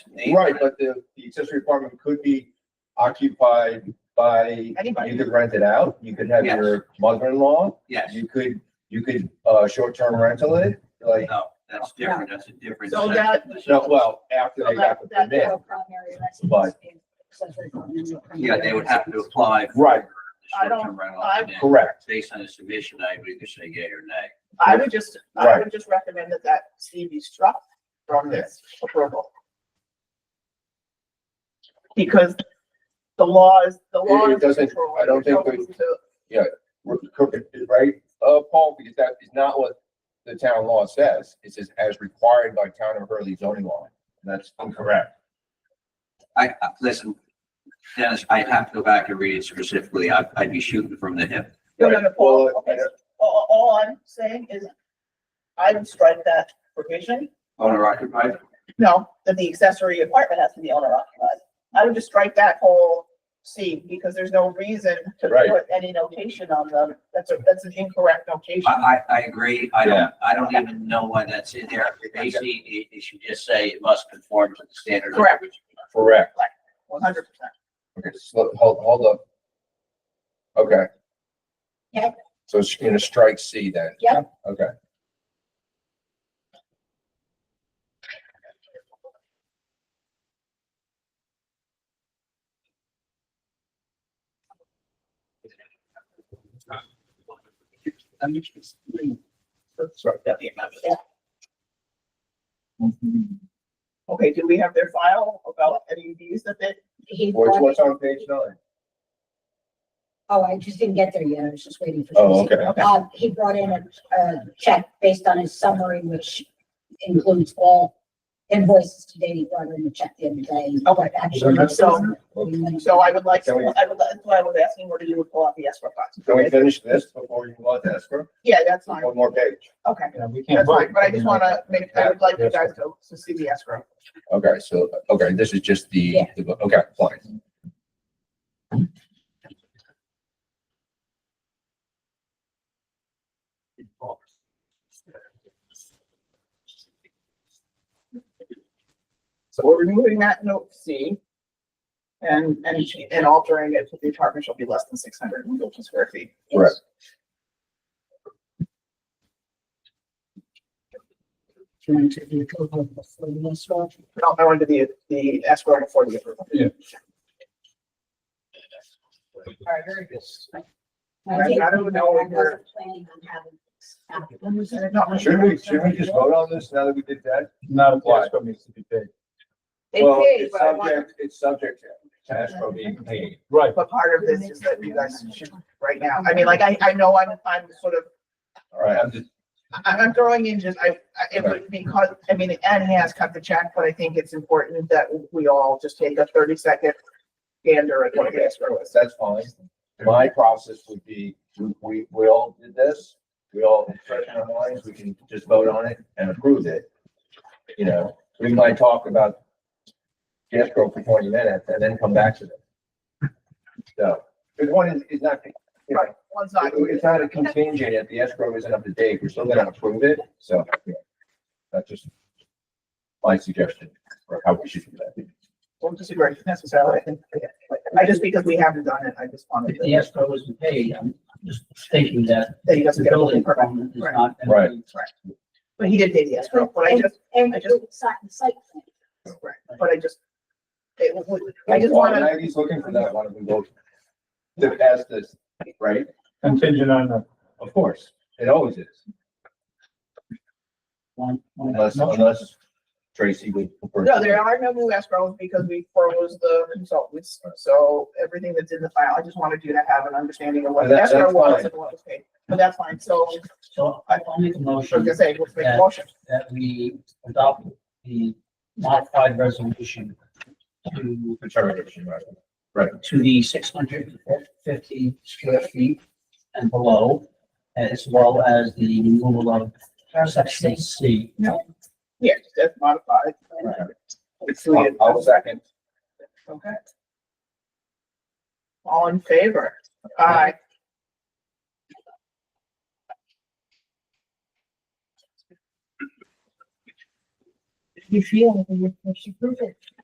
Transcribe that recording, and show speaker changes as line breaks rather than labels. name.
Right, but the, the accessory apartment could be occupied by,
Anybody.
you could rent it out, you could have your mother-in-law,
Yes,
you could, you could, uh, short-term rental it, like,
no, that's different, that's a different.
So
set.
that,
no, well, after they
so
got
that,
the
that
permit.
primary residence.
But-
is-
Yeah, they would have to apply. for
Right.
I don't-
short-term rental
I-
and then
Correct,
Based on the submission, I would either say yea or nay.
I would just, I
Right.
would just recommend that that C be struck from this approval. Because the law is, the law
It- it
is.
doesn't-
control.
I don't think we-
It goes to-
We're cooking, right, uh, Paul, because that is not what the town law says, it says as required by town of Hurley zoning law, that's incorrect.
I, I- listen, Dennis, I'd have to go back and read it specifically. I'd, I'd be shooting from the hip.
No, no, no, Paul,
Well, I
okay, all, all I'm saying is I would strike that provision.
Owner occupied,
No, that the accessory apartment has to be owner occupied. I would just strike that whole C because there's no reason to
Right.
put any notation on them. That's a, that's an incorrect notation.
I, I, I agree. I
Yeah.
don't, I don't even know why that's in there. Basically, it, it should just say it must conform to the standard. of-
Correct.
Correct.
One hundred percent.
Okay, slow, hold, hold up. Okay.
Yep.
So it's gonna strike C then?
Yep.
Okay. Sorry.
Okay, do we have their file about any of these that they,
He
What's,
bought-
what's on page nine?
Oh, I just didn't get there yet. I was just waiting for.
Oh,
Susie.
okay.
okay,
Uh, he brought in a, a check based on his summary, which includes all invoices today. He brought in a check the other day.
Okay.
But actually, it's-
So- so I would like, to-
Can we-
I would, that's why I was asking, where do you would pull out the escrow box?
Can we finish this before you go on to escrow?
Yeah, that's fine.
One more page.
Okay.
Yeah, we can't
That's
vote.
fine, but I just wanna make, I would like you guys to, to see the escrow.
Okay, so, okay, this is just the,
Yeah.
the- okay, fine.
So we're removing that note C. And, and, and altering it to the apartment shall be less than six hundred and fifty square feet.
Correct.
Do you want to do the total before the next one?
No, I wanted the, the escrow before the approval.
All right, very good.
I don't know
I
if we're-
wasn't planning on having. this happen.
Should we, should we just vote on this now that we did that?
Not if the escrow needs to be paid.
They
Well,
paid,
it's
but I want,
subject, it's subject to escrow being paid.
Right.
but part of this is that you guys should, right now, I mean, like, I, I know I'm, I'm sort of,
All right, I'm just,
I, I'm throwing in just, I, I- it would because, I mean, Anne has cut the check, but I think it's important that we all just take a thirty second gander at what the escrow is.
that's fine. My process would be, we- we, we all did this, we all expressed our minds, we can just vote on it and approve it. You know, we might talk about the escrow for twenty minutes and then come back to it. So, because one is, is not, you know,
Right, one's not.
it's not a contingent, if the escrow isn't up to date, we're still gonna approve it, so. yeah. That's just my suggestion for how we should do that.
Don't disagree necessarily. I think, I just, because we haven't done it, I just wanted
If the
to,
escrow isn't paid, I'm just thinking that
that he
the
doesn't get a
building
building permit.
permit is
Right.
not.
Right.
But he did pay the escrow, but I just,
And
I just-
it's not in site plan.
but I just, it was, I just wanna,
He's looking for that one, if we vote to pass this, right?
Contingent on the.
Of course, it always is,
One- one-
unless, unless Tracy would.
no, there are no new escrows because we froze the consultants. So everything that's in the file, I just wanted you to have an understanding of what the
That- that's
escrow was
fine.
and what was paid. But that's fine, so
So I will make a
I was
motion
gonna say, let's make a motion.
that we adopt the modified resolution to,
Determination, right?
to the six hundred fifty square feet and below, as well as the removal of section C.
Yeah, just as modified.
I'll- I'll second.
Okay. All in favor? Aye. you feel, you should prove it.